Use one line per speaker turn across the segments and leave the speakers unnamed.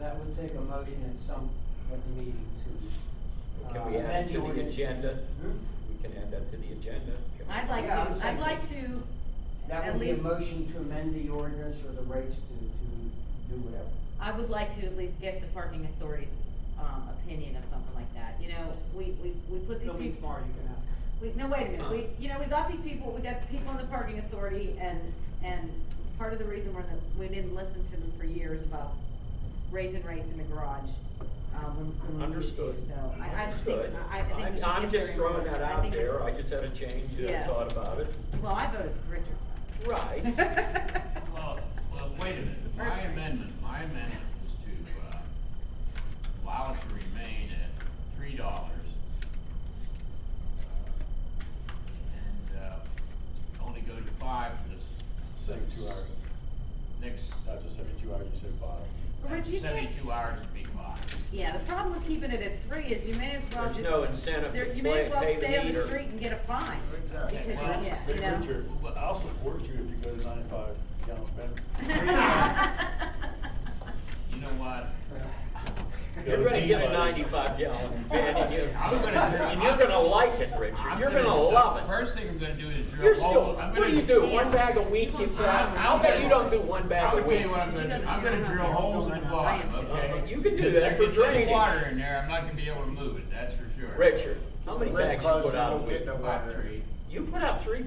we'll take a motion at some, at the meeting to.
Can
uh,
we add
amend
it to the
ordinance.
agenda?
Hmm?
We can add that to the agenda. Can we-
I'd like
Yeah, I'm
to,
saying-
I'd like to,
That
at
would be a
least,
motion to amend the ordinance or the rates to, to do whatever.
I would like to at least get the parking authority's, um, opinion of something like that, you know, we, we, we put these
They'll be
people.
tomorrow, you can ask.
We, no, wait a minute, we, you know, we got these people, we got people in the parking authority and, and part of the reason we're, the- we didn't listen to them for years about raising rates in the garage, um, when, when we needed
Understood.
to, so I, I just think,
Understood.
I, I think we should get
I'm just
their
throwing
input.
that
I
out
think
there,
it's-
I just had a change, I
Yeah.
thought about it.
Well, I voted for Richardson.
Right,
Well, well, wait a minute, my
Perfect.
amendment, my amendment is to, uh, allow it to remain at three dollars. And, uh, only go to five for this.
Seventy-two hours,
Next, uh,
not just seventy-two hours, you said five.
Rich, you can't,
seventy-two hours would be five.
yeah, the problem with keeping it at three is you may as well
There's
just.
no incentive
there-
to
You may
play-
as well
pay the
stay on the
meter.
street and get a fine,
Exactly.
because,
Well,
you're- yeah,
But
you know.
Richard, well, I'll support you if you go to ninety-five gallons better.
You know what?
you're gonna get a ninety-five gallon van, and you,
I'm gonna do-
and you're gonna like it, Richard,
I'm
you're gonna love it.
First thing I'm gonna do is drill
You're
a
still,
hole, I'm gonna.
what do you do,
Yeah.
one bag a week, you throw,
I'm-
I'll bet you don't do one bag
I'm
a
gonna
week.
tell you what I'm
Did you go
gonna, do.
to
I'm
the
gonna
funeral
drill
home?
holes in the
I am
bottom,
too.
okay?
You can do
'Cause
that
there-
for
if there's
drainage.
Water in there, I'm not gonna be able to move it, that's for sure.
Richard, how many
Let it
bags you
close,
put
they
out a
won't get
week?
no
About
water.
three.
You put out three,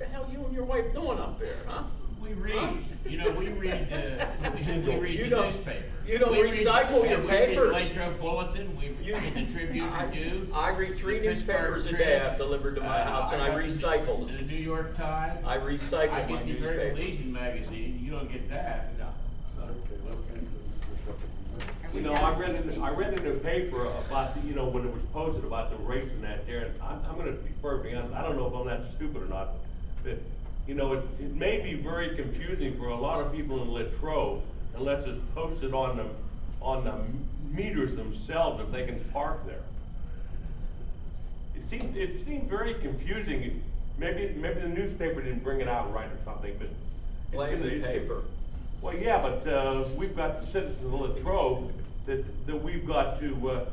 the hell you and your wife doing up there, huh?
We read, you know, we read, uh, we we read
You
the
don't-
newspaper.
you don't
We read-
recycle your
and we read the
papers.
Latrobe Bulletin, we
You-
read the Tribune
I-
Review.
I read three
the
newspapers a
Pittsburgh
day
Trib,
I've delivered to my
uh,
house, and I
got the-
recycle them.
The New York Times.
I recycle my
I get the American
newspaper.
Legion magazine, you don't get that. No.
Okay, let's get into this.
Are we
You know, I
done?
read in, I read in the paper about, the you know, when it was posted about the rates and that there, and I'm, I'm gonna be perfectly honest, I don't know if I'm that stupid or not, but, you know, it, it may be very confusing for a lot of people in Latrobe unless it's posted on the, on the meters themselves if they can park there. It seemed, it seemed very confusing, maybe, maybe the newspaper didn't bring it out right or something, but. it's
Blame
gonna-
the
it's-
paper.
well, yeah, but, uh, we've got the citizens of Latrobe that, that we've got to, uh,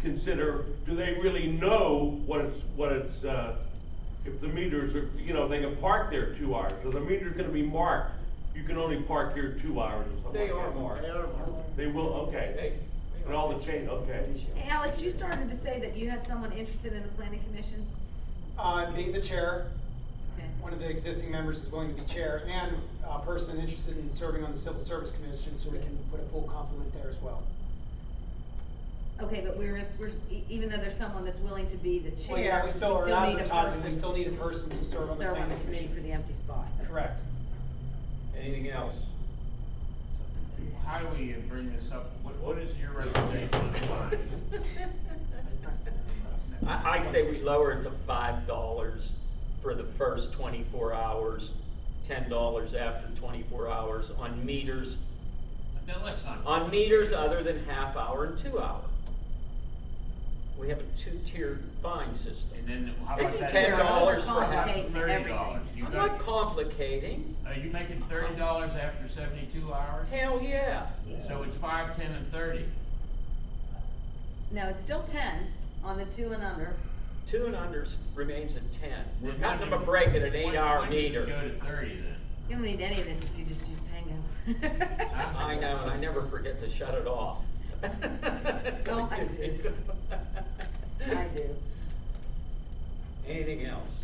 consider, do they really know what it's, what it's, uh, if the meters are, you know, they can park there two hours, so the meter's gonna be marked, you can only park here two hours or something
They
like
are
that.
marked.
They will, okay,
They-
and all the chain, okay.
Hey, Alex, you started to say that you had someone interested in the planning commission?
Uh, being the chair,
Okay.
one of the existing members is willing to be chair, and a person interested in serving on the Civil Service Commission, so we can put a full complement there as well.
Okay, but we're, we're, e- even though there's someone that's willing to be the
Well, yeah,
chair,
we
we
still are
still need a
advertising,
person.
we still need a person to serve on the
Serve on the
planning
committee for
commission.
the empty spot.
Correct.
Anything else?
How do we uh, bring this up? What, what is your recommendation on fines?
I, I say we lower it to five dollars for the first twenty-four hours, ten dollars after twenty-four hours on meters,
Now, let's not.
on meters other than half hour and two hour. We have a two-tiered fine system.
And then how
It's
about that?
ten dollars for half.
Overcomplicate
Thirty dollars.
everything.
You
I'm not
got,
complicating.
are you making thirty dollars after seventy-two hours?
Hell, yeah.
So it's five, ten, and thirty.
No, it's still ten on the two and under.
Two and under s- remains at ten. We're
When-
not
when
gonna
do-
break it at
when-
eight-hour
when does it
meter.
Go to thirty then.
You don't need any of this if you just use Pango.
I know, and I never forget to shut it off.
No, I do. I do.
Anything else?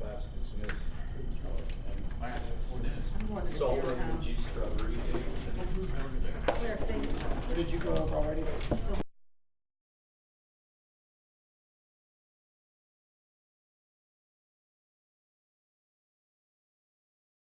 Class dismissed.
Last sentence.
I'm going to the
Salt,
fair
lemon
now.
juice, strawberry.
Where are things?
Did you go over already?